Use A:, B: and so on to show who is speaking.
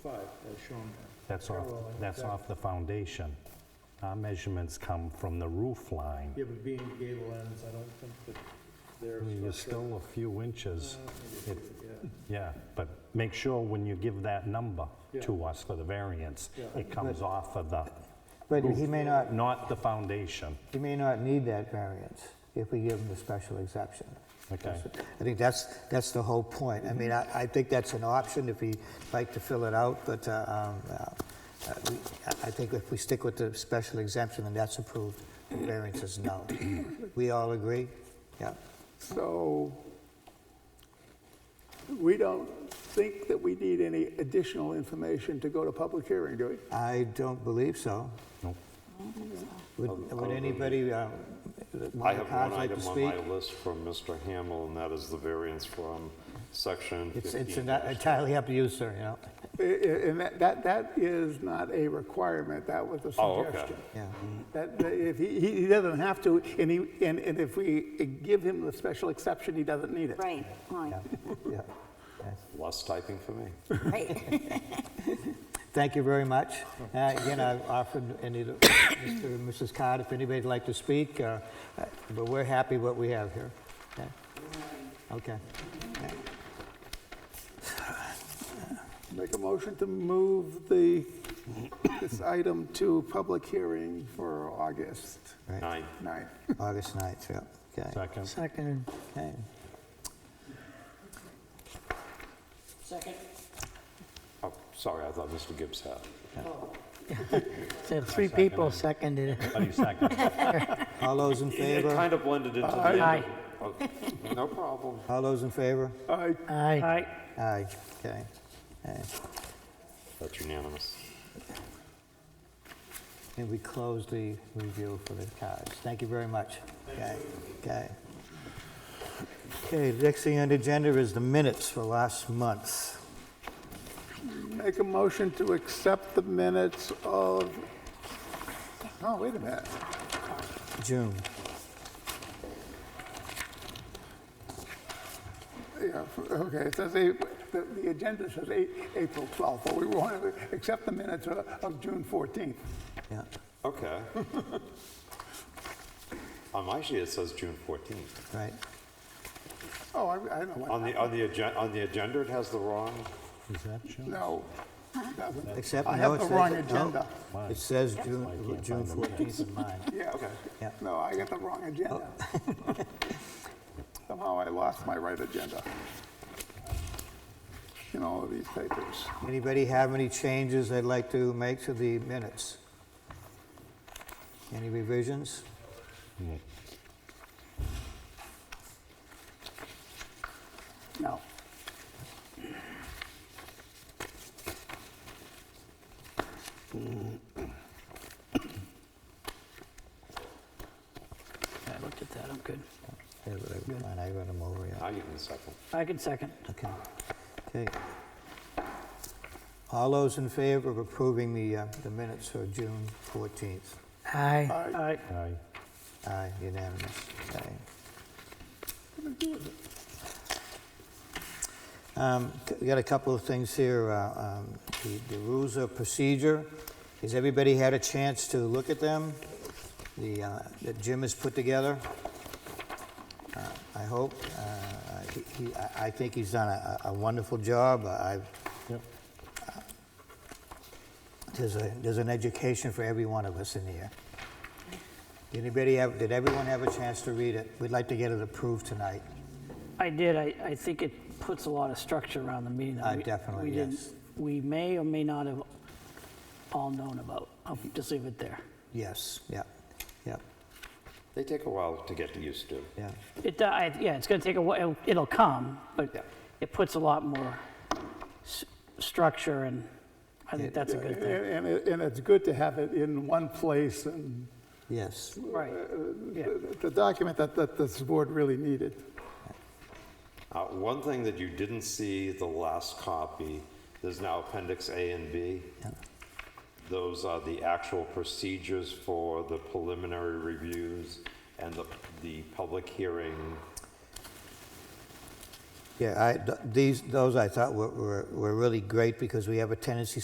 A: shown
B: That's off,
A: Parallel,
B: that's
A: exactly.
B: off the foundation. Our measurements come from the roof line.
A: there. Yeah, but being gable ends, I don't think that
B: I mean,
A: they're
B: You're
A: structural.
B: still a few inches,
A: Yeah,
B: yeah, but make sure when you give that number
A: Yeah.
B: to us for the variance,
A: Yeah.
B: it comes off of the,
C: But he may not,
B: not the foundation,
C: he may not need that variance if we give him the special exception.
B: okay?
C: I think that's, that's the whole point. I mean, I, I think that's an option if he'd like to fill it out, but uh, um, uh, uh, we- I I think if we stick with the special exemption and that's approved, the variance is no. We all agree? Yeah.
D: So we don't think that we need any additional information to go to public hearing, do we?
C: I don't believe so.
B: Nope.
C: Would would anybody, um,
E: I
C: want to
E: have one
C: like to
E: item on
C: speak?
E: my list from Mr. Hamel, and that is the variance from section
C: It's it's
E: 15.
C: entirely up to you, sir, you know?
D: I- I- And that, that that is not a requirement, that was a
E: Oh, okay.
D: suggestion.
C: Yeah.
D: That, that if he, he he doesn't have to, and he, and, and if we give him the special exception, he doesn't need it.
F: Right, right,
C: Yeah.
E: Less typing for me.
F: right.
C: Thank you very much. Uh, Again, I've offered any, to- Mr. and Mrs. Card, if anybody'd like to speak, uh, uh, but we're happy what we have here. Okay? Okay.
D: Make a motion to move the, this item to public hearing for August
C: Right.
E: Nine.
D: 9th.
C: August 9th, yeah. Okay.
B: Second,
C: Second. Okay.
F: Second.
E: Oh, sorry, I thought Mr. Gibbs had.
G: So three people seconded it.
B: any second.
C: All those in
E: It
C: favor?
E: kind of blended into the
G: Aye.
E: end. Okay, No problem.
C: All those in favor?
D: I
G: Aye.
C: Aye. Okay. Okay.
E: That's unanimous.
C: And we close the review for the cards. Thank you very much. Okay, okay. Okay, next thing on the agenda is the minutes for last month.
D: Make a motion to accept the minutes of, oh, wait a minute.
C: June.
D: Yeah, okay, it says, Ap- the the agenda says A- April 12th, but we want to accept the minutes of of June 14th.
C: Yeah.
E: Okay. On my sheet, it says June 14th.
C: Right.
D: Oh, I I know. what-
E: On the, on the agenda, on the agenda, it has the wrong,
B: Is that you?
D: No. it doesn't.
C: Except, no,
D: I have
C: it
D: the
C: says-
D: wrong
C: no,
D: agenda.
C: It says
B: I
C: June,
B: can't
C: June
B: find the minutes.
C: 14th in mine.
D: Yeah,
C: Yeah. Oh.
D: okay. No, I got the wrong agenda. Somehow I lost my right agenda in all of these papers.
C: Anybody have any changes they'd like to make to the minutes? Any revisions?
D: No.
G: I looked at that, I'm good.
C: Here, wait, come on, I read them over, yeah.
E: now you can second.
G: I can second.
C: Okay. Okay. All those in favor of approving the, uh, the minutes for June 14th?
G: Aye.
D: Aye.
B: Aye.
C: Aye, unanimous. Okay. Um, c- We got a couple of things here. uh, um, The the rules of procedure, has everybody had a chance to look at them? The, uh, that Jim has put together? Uh, I hope. uh, he- he- I- I think he's done a a wonderful job. I've there's a, there's an education for every one of us in here. Did Anybody have, did everyone have a chance to read it? We'd like to get it approved tonight.
G: I did, I, I think it puts a lot of structure around the meeting. that
C: Uh,
G: we-
C: definitely,
G: we didn't-
C: yes.
G: We may or may not have all known about. I'll just leave it there.
C: Yes, yeah, yeah,
E: They take a while to get used to.
C: yeah.
G: It, do- I- yeah, it's gonna take a while, it'll come,
E: Yeah.
G: but it puts a lot more s- structure and I think that's a good
D: And,
G: thing.
D: and it- and it's good to have it in one place and
C: Yes,
G: Right, yeah.
D: the- the document that, that this board really needed.
E: Uh, One thing that you didn't see the last copy, there's now Appendix A and B. Those are the actual procedures for the preliminary reviews and the, the public hearing.
C: yeah, I, th- these, those I thought were, were, were really great because we have a tendency